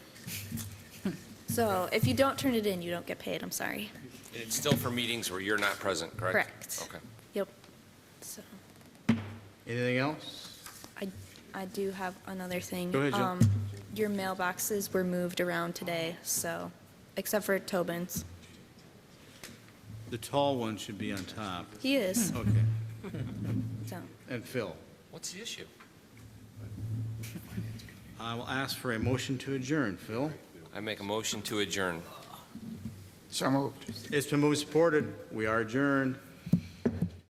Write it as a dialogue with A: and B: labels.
A: So if you don't turn it in, you don't get paid, I'm sorry.
B: It's still for meetings where you're not present, correct?
A: Correct.
B: Okay.
A: Yep. So
C: Anything else?
A: I, I do have another thing.
C: Go ahead, Jill.
A: Um, Your mailboxes were moved around today, so, except for Tobin's.
C: The tall one should be on top.
A: He is,
C: Okay. Hmm.
A: so,
C: And Phil,
B: What's the issue?
C: I will ask for a motion to adjourn. Phil?
B: I make a motion to adjourn.
D: So moved.
C: It's been moved and supported. We are adjourned.